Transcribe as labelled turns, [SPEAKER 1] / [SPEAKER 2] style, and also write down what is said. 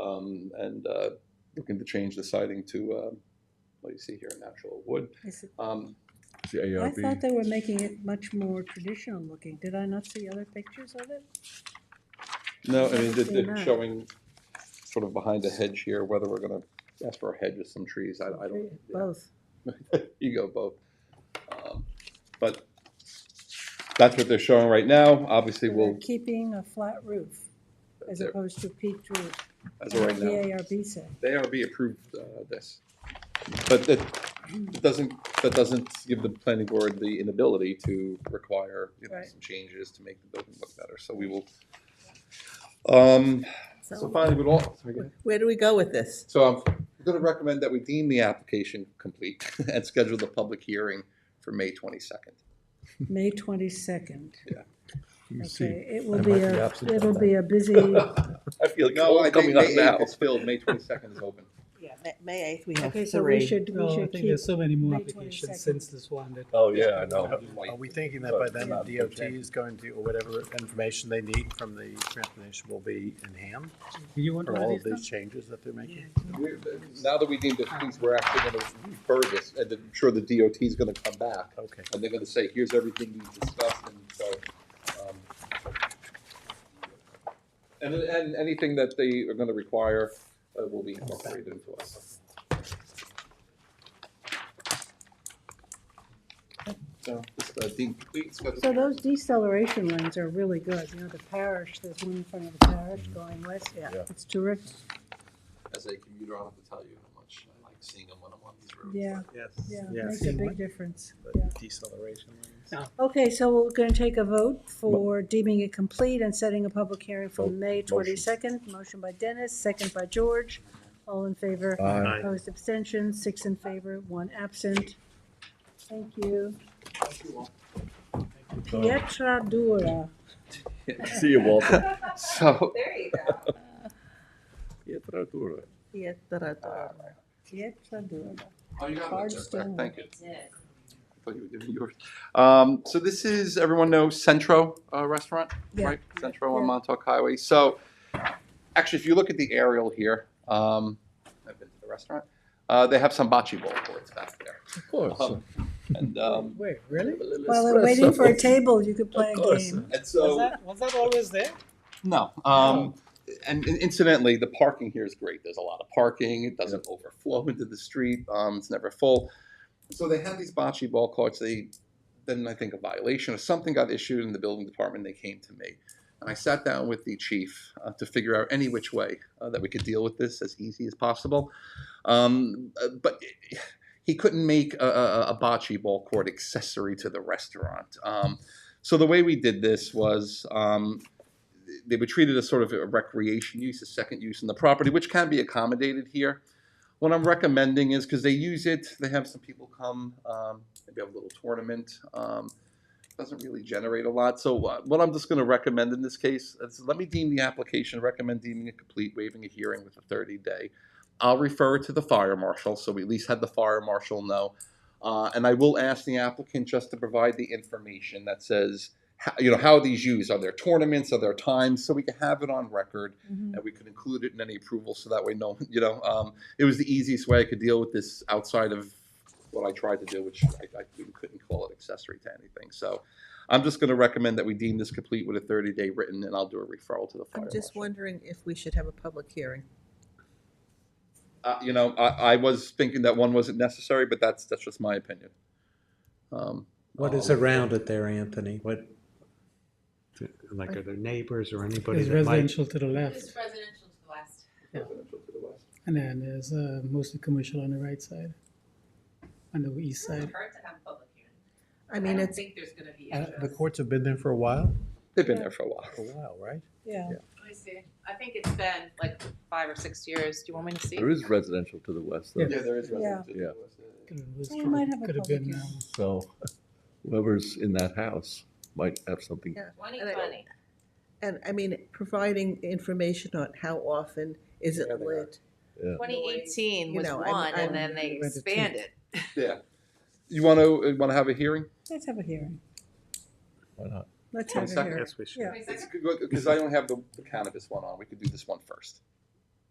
[SPEAKER 1] um, and uh, looking to change the siding to, um, what do you see here, natural wood.
[SPEAKER 2] Is it-
[SPEAKER 1] Um,
[SPEAKER 3] The
[SPEAKER 2] I thought
[SPEAKER 3] ARB,
[SPEAKER 2] they were making it much more traditional looking. Did I not see other pictures of it?
[SPEAKER 1] No, I mean, they're-
[SPEAKER 2] Seen
[SPEAKER 1] they're
[SPEAKER 2] that.
[SPEAKER 1] showing sort of behind the hedge here, whether we're gonna ask for a hedge or some trees, I I don't. yeah.
[SPEAKER 2] Both.
[SPEAKER 1] you go both. Um, But that's what they're showing right now. Obviously,
[SPEAKER 2] So
[SPEAKER 1] we'll,
[SPEAKER 2] they're Keeping a flat roof as
[SPEAKER 1] they're-
[SPEAKER 2] opposed to peaked roof.
[SPEAKER 1] as of right
[SPEAKER 2] The
[SPEAKER 1] now,
[SPEAKER 2] ARB said.
[SPEAKER 1] they already approved uh, this. But that that doesn't, that doesn't give the planning board the inability to require, you know,
[SPEAKER 2] Right.
[SPEAKER 1] some changes to make the building look better. So we will. Um, So
[SPEAKER 4] So
[SPEAKER 1] finally, we'd all, sorry, go ahead.
[SPEAKER 4] where do we go with this?
[SPEAKER 1] So I'm going to recommend that we deem the application complete and schedule the public hearing for May 22nd.
[SPEAKER 2] May twenty-second.
[SPEAKER 3] you see,
[SPEAKER 2] Okay, it will
[SPEAKER 3] I
[SPEAKER 2] be
[SPEAKER 3] might be
[SPEAKER 2] a,
[SPEAKER 3] absent on
[SPEAKER 2] it'll
[SPEAKER 3] that.
[SPEAKER 2] be a busy,
[SPEAKER 1] I feel like
[SPEAKER 5] No, I
[SPEAKER 1] it's all
[SPEAKER 5] think
[SPEAKER 1] coming up
[SPEAKER 5] May
[SPEAKER 1] now.
[SPEAKER 5] eighth is filled, May twenty-second is open.
[SPEAKER 4] Ma- May eighth, we have
[SPEAKER 2] okay, so we
[SPEAKER 4] three.
[SPEAKER 2] should, we
[SPEAKER 6] No, I
[SPEAKER 2] should
[SPEAKER 6] think
[SPEAKER 2] keep,
[SPEAKER 6] there's so many more
[SPEAKER 2] May
[SPEAKER 6] applications
[SPEAKER 2] 22nd.
[SPEAKER 6] since this one that.
[SPEAKER 3] Oh, yeah, I know.
[SPEAKER 7] Are we thinking that by then the DOT is going to, or whatever information they need from the transportation will be in hand
[SPEAKER 6] You want
[SPEAKER 7] for
[SPEAKER 6] all
[SPEAKER 7] all
[SPEAKER 6] these
[SPEAKER 7] of these changes that they're making?
[SPEAKER 1] We're- Now that we deem the fees, we're actually gonna refer this, and I'm sure the DOT is gonna come back,
[SPEAKER 7] Okay.
[SPEAKER 1] and they're gonna say, here's everything you discussed, and so, um, and, and anything that they are gonna require uh, will be incorporated into us. So, this, uh, deemed complete, schedule-
[SPEAKER 2] so those deceleration lanes are really good. You know, the parish, there's one in front of the parish going west. Yeah,
[SPEAKER 3] Yeah.
[SPEAKER 2] it's terrific.
[SPEAKER 1] As a commuter, I don't have to tell you how much I like seeing them when I'm on these roads.
[SPEAKER 2] Yeah, yeah, it makes a
[SPEAKER 7] Seeing
[SPEAKER 2] big
[SPEAKER 7] what?
[SPEAKER 2] difference.
[SPEAKER 7] The
[SPEAKER 2] Yeah.
[SPEAKER 7] Deceleration. lanes.
[SPEAKER 2] Okay, so we're going to take a vote for deeming it complete and setting a public hearing for
[SPEAKER 3] Mo-
[SPEAKER 2] May
[SPEAKER 3] Oh, motion.
[SPEAKER 2] 22nd. Motion by Dennis, second by George. All in favor?
[SPEAKER 3] Aye.
[SPEAKER 7] Aye.
[SPEAKER 2] Opposed, abstentions, six in favor, one absent. Thank you. Pietra Dura.
[SPEAKER 3] see you, Walter.
[SPEAKER 1] So,
[SPEAKER 4] There you go.
[SPEAKER 3] Pietratura.
[SPEAKER 4] Yeah, da-da-da.
[SPEAKER 2] Pietra Dura.
[SPEAKER 1] Oh, you got
[SPEAKER 2] Hard
[SPEAKER 1] it. Jeff.
[SPEAKER 2] stone.
[SPEAKER 1] Thank you. Thought you were doing yours. Um, so this is, everyone knows Centro uh, Restaurant,
[SPEAKER 2] Yeah.
[SPEAKER 1] right? Centro on
[SPEAKER 2] Yeah.
[SPEAKER 1] Montauk Highway. So, actually, if you look at the aerial here, um, I've been to the restaurant, uh, they have some bocce ball courts back there.
[SPEAKER 3] Of course.
[SPEAKER 1] Um, And, um,
[SPEAKER 6] Wait, really?
[SPEAKER 2] While we're waiting for a table, you could play a
[SPEAKER 3] course.
[SPEAKER 2] game.
[SPEAKER 1] and
[SPEAKER 6] Was
[SPEAKER 1] so,
[SPEAKER 6] that, was that always there?
[SPEAKER 1] no, um, and and incidentally, the parking here is great. There's a lot of parking. It doesn't overflow into the street. Um, it's never full. So they had these bocce ball courts. They then I think a violation or something got issued in the building department. They came to me, and I sat down with the chief uh, to figure out any which way uh, that we could deal with this as easy as possible. Um, uh, but he couldn't make a, a, a bocce ball court accessory to the restaurant. Um, so the way we did this was um, they were treated as sort of a recreation use, a second use in the property, which can be accommodated here. What I'm recommending is, because they use it, they have some people come, um, maybe have a little tournament. Um, doesn't really generate a lot, so uh, what I'm just gonna recommend in this case is let me deem the application, recommend deeming it complete, waiving a hearing with a thirty day. I'll refer it to the fire marshal, so we at least had the fire marshal know. Uh, and I will ask the applicant just to provide the information that says, how, you know, how are these used? Are there tournaments? Are there times? So we can have it on record
[SPEAKER 4] Mm-hmm.
[SPEAKER 2] Mhm.
[SPEAKER 1] and we could include it in any approval so that way no, you know, um, it was the easiest way I could deal with this outside of what I tried to do, which I, I couldn't call it accessory to anything. So I'm just going to recommend that we deem this complete with a 30 day written and I'll do a referral to the fire
[SPEAKER 4] I'm just
[SPEAKER 1] marshal.
[SPEAKER 4] wondering if we should have a public hearing.
[SPEAKER 1] Uh, you know, I, I was thinking that one wasn't necessary, but that's, that's just my opinion. Um,
[SPEAKER 8] What is
[SPEAKER 1] um,
[SPEAKER 8] around it there, Anthony? What, like, are there neighbors or anybody
[SPEAKER 6] There's
[SPEAKER 8] that might?
[SPEAKER 6] residential to the
[SPEAKER 9] It's
[SPEAKER 6] left
[SPEAKER 9] residential to the west.
[SPEAKER 6] and then there's uh, mostly commercial on the right side. On the east
[SPEAKER 9] It doesn't
[SPEAKER 6] side.
[SPEAKER 9] hurt to have public hearing.
[SPEAKER 4] I mean,
[SPEAKER 9] don't
[SPEAKER 4] it's,
[SPEAKER 9] think there's gonna be
[SPEAKER 7] Uh,
[SPEAKER 9] interest.
[SPEAKER 7] The courts have been there for a while?
[SPEAKER 1] They've been there for a while.
[SPEAKER 7] For a while, right?
[SPEAKER 2] Yeah,
[SPEAKER 9] I see. I think it's been like five or six years. Do you want me to see?
[SPEAKER 3] There is residential to the west, though.
[SPEAKER 6] Yeah.
[SPEAKER 1] there is
[SPEAKER 2] Yeah.
[SPEAKER 3] Yeah.
[SPEAKER 6] Could have- was
[SPEAKER 2] We
[SPEAKER 6] true.
[SPEAKER 2] might have a
[SPEAKER 6] Could have
[SPEAKER 2] public
[SPEAKER 6] been,
[SPEAKER 2] hearing.
[SPEAKER 6] um,
[SPEAKER 3] So whoever's in that house might have something.
[SPEAKER 4] Yeah.
[SPEAKER 9] Twenty twenty.
[SPEAKER 4] and I mean, providing information on how often is it
[SPEAKER 1] Yeah, they are.
[SPEAKER 4] lit?
[SPEAKER 9] Twenty eighteen
[SPEAKER 4] You
[SPEAKER 9] was
[SPEAKER 4] know, I'm-
[SPEAKER 9] one
[SPEAKER 4] I'm-
[SPEAKER 9] and then they
[SPEAKER 6] Went to two.
[SPEAKER 9] expanded.
[SPEAKER 1] Yeah. You want to, want to have a hearing?
[SPEAKER 2] let's have a hearing.
[SPEAKER 3] Why not?
[SPEAKER 2] Let's have a
[SPEAKER 1] 22nd.
[SPEAKER 2] hearing.
[SPEAKER 7] we should.
[SPEAKER 2] Yeah.
[SPEAKER 9] Wait a second.
[SPEAKER 1] Because I don't have the the cannabis one on, we could do this one first.